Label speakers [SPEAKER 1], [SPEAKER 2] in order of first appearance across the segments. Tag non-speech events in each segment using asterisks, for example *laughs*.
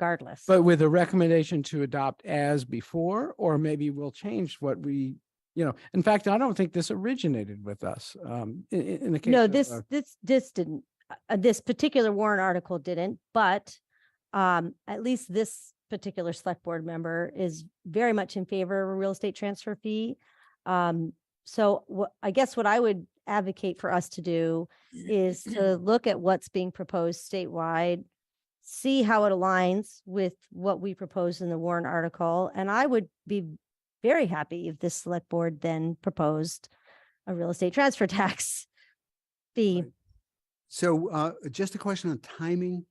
[SPEAKER 1] regardless.
[SPEAKER 2] But with a recommendation to adopt as before, or maybe we'll change what we, you know, in fact, I don't think this originated with us. Um, in, in the case.
[SPEAKER 1] No,
[SPEAKER 2] of,
[SPEAKER 1] this,
[SPEAKER 2] uh,
[SPEAKER 1] this, this didn't, uh, this particular warrant article didn't, but um, at least this particular select board member is very much in favor of a real estate transfer fee. Um, so what, I guess what I would advocate for us to do is to look at what's being proposed statewide, see how it aligns with what we propose in the warrant article, and I would be very happy if this select board then proposed a real estate transfer *laughs* tax fee.
[SPEAKER 3] So uh, just a question on timing.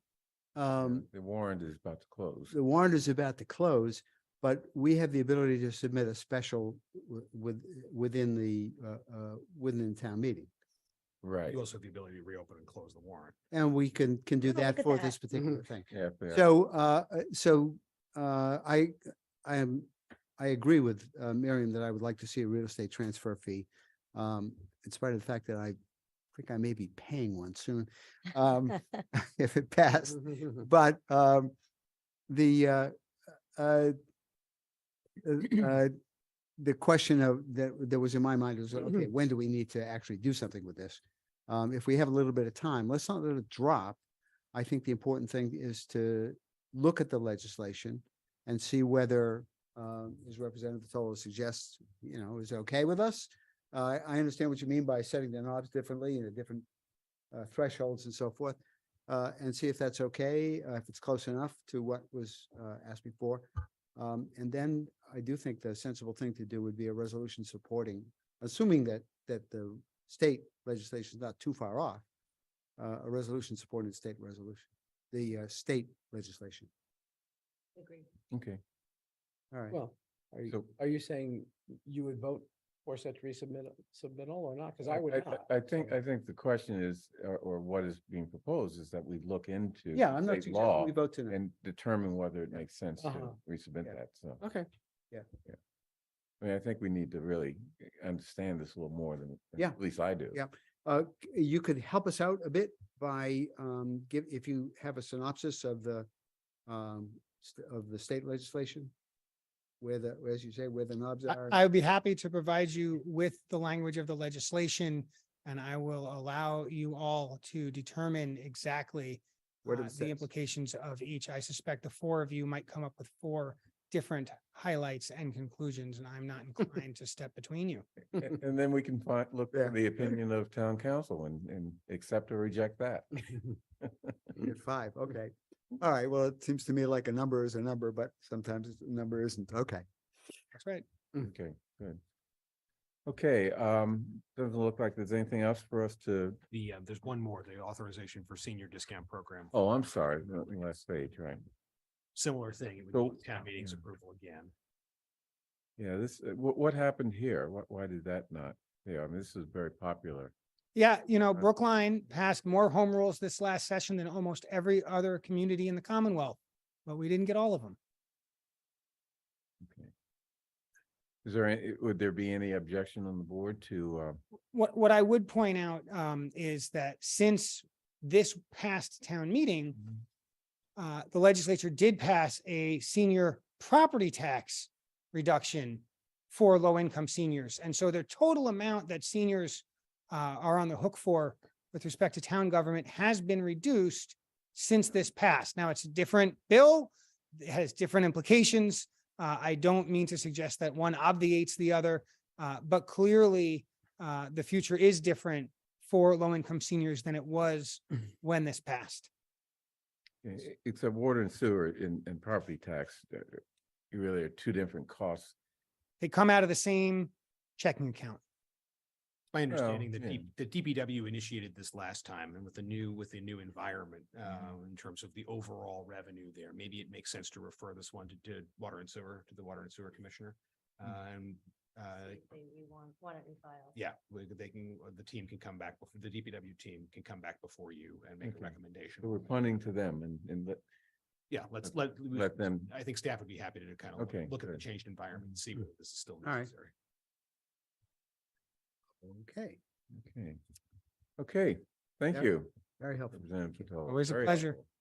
[SPEAKER 3] Um,
[SPEAKER 4] The warrant is about to close.
[SPEAKER 3] The warrant is about to close, but we have the ability to submit a special wi- with, within the, uh, uh, within the town meeting.
[SPEAKER 4] Right.
[SPEAKER 5] You also have the ability to reopen and close the warrant.
[SPEAKER 3] And we can, can do
[SPEAKER 1] We'll look
[SPEAKER 3] that
[SPEAKER 1] at
[SPEAKER 3] for
[SPEAKER 1] that. Mm-hmm.
[SPEAKER 3] this particular thing.
[SPEAKER 4] Yeah, but-
[SPEAKER 3] So, uh, uh, so, uh, I, I am, I agree with, uh, Miriam that I would like to see a real estate transfer fee. Um, in spite of the fact that I think I may be paying one soon, um,
[SPEAKER 1] *laughs*
[SPEAKER 3] *laughs* if it
[SPEAKER 4] *laughs*
[SPEAKER 3] passed. But, um, the, uh, uh, uh, uh, the question of, that, that was in my mind was, okay, when do we need to actually do something with this? Um, if we have a little bit of time, let's not let it drop. I think the important thing is to look at the legislation and see whether, um, as Representative Tola suggests, you know, is okay with us. Uh, I understand what you mean by setting the knobs differently and the different, uh, thresholds and so forth. Uh, and see if that's okay, uh, if it's close enough to what was, uh, asked before. Um, and then I do think the sensible thing to do would be a resolution supporting, assuming that, that the state legislation is not too far off. Uh, a resolution supporting the state resolution, the, uh, state legislation.
[SPEAKER 4] Okay.
[SPEAKER 3] All right.
[SPEAKER 2] Well, are you,
[SPEAKER 4] So-
[SPEAKER 2] are you saying you would vote for such resubmit, submittal or not? Cause I would not.
[SPEAKER 4] I think, I think the question is, or, or what is being proposed is that we look into.
[SPEAKER 3] Yeah, I'm not
[SPEAKER 4] state
[SPEAKER 3] suggesting
[SPEAKER 4] Law
[SPEAKER 3] we vote tonight.
[SPEAKER 4] and determine whether it makes sense to
[SPEAKER 2] Uh-huh.
[SPEAKER 4] resubmit
[SPEAKER 3] Yeah.
[SPEAKER 4] that, so.
[SPEAKER 2] Okay.
[SPEAKER 4] I mean, I think we need to really understand this a little more than. than
[SPEAKER 3] Yeah.
[SPEAKER 4] At least I do.
[SPEAKER 3] Yeah. Uh, c- you could help us out a bit by, um, give, if you have a synopsis of the, um, st- of the state legislation? Where the, as you say, where the knobs
[SPEAKER 6] I-
[SPEAKER 3] are. *laughs*
[SPEAKER 6] I would be happy to provide you with the language of the legislation, and I will allow you all to determine exactly
[SPEAKER 3] What it
[SPEAKER 6] uh,
[SPEAKER 3] says.
[SPEAKER 6] the implications of each. I suspect the four of you might come up with four different highlights and conclusions, and I'm not inclined to step between you.
[SPEAKER 4] And and then we can find, look
[SPEAKER 3] Yeah.
[SPEAKER 4] at the opinion of town council and, and accept or reject that.
[SPEAKER 3] You're five, okay. All right, well, it seems to me like a number is a number, but sometimes it's- a number isn't, okay.
[SPEAKER 6] That's right.
[SPEAKER 4] Okay, good. Okay, um, doesn't look like there's anything else for us to
[SPEAKER 5] The, uh, there's one more, the authorization for senior discount program.
[SPEAKER 4] Oh, I'm sorry, not the last page, right?
[SPEAKER 5] Similar thing, it would
[SPEAKER 4] So-
[SPEAKER 5] go to town meeting's
[SPEAKER 4] Yeah.
[SPEAKER 5] approval again.
[SPEAKER 4] Yeah, this, uh, what, what happened here? What, why did that not? Yeah, I mean, this is very popular.
[SPEAKER 6] Yeah, you know,
[SPEAKER 4] That's-
[SPEAKER 6] Brookline passed more home rules this last session than almost every other community in the Commonwealth, but we didn't get all of them.
[SPEAKER 4] Okay. Is there, any would there be any objection on the board to, uh,
[SPEAKER 6] What, what I would point out, um, is that since this past town meeting, uh, the legislature did pass a senior property tax reduction for low-income seniors. And so the total amount that seniors uh, are on the hook for with respect to town government has been reduced since this passed. Now, it's a different bill. It has different implications. Uh, I don't mean to suggest that one obviates the other, uh, but clearly uh, the future is different for low-income seniors than it was when this passed.
[SPEAKER 4] e- e- except water and sewer and, and property tax? uh, You really are two different costs.
[SPEAKER 6] they come out of the same checking account.
[SPEAKER 5] My
[SPEAKER 4] Well,
[SPEAKER 5] understanding that
[SPEAKER 4] yeah.
[SPEAKER 5] D- the DPW initiated this last time and with the new, with the new environment,
[SPEAKER 4] Mm-hmm.
[SPEAKER 5] uh, in terms of the overall revenue there, maybe it makes sense to refer this one to, to water and sewer, to the water and sewer commissioner.
[SPEAKER 4] Mm.
[SPEAKER 5] Um, uh, yeah, we- they can, uh, the team can come back, bef- the DPW team can come back before you and make a
[SPEAKER 4] Okay.
[SPEAKER 5] recommendation.
[SPEAKER 4] So we're punting to them and, and let,
[SPEAKER 5] Yeah, let's let, we-
[SPEAKER 4] let them,
[SPEAKER 5] I think staff would be happy to kind
[SPEAKER 4] Okay,
[SPEAKER 5] of look at the
[SPEAKER 4] good.
[SPEAKER 5] changed environment and see whether this is still
[SPEAKER 3] right.
[SPEAKER 5] necessary.
[SPEAKER 3] Okay,
[SPEAKER 4] okay. Okay, thank
[SPEAKER 3] Yeah.
[SPEAKER 4] you.
[SPEAKER 3] very helpful.
[SPEAKER 4] Representative Vitale.
[SPEAKER 6] Always a
[SPEAKER 4] Very
[SPEAKER 6] pleasure.
[SPEAKER 4] helpful.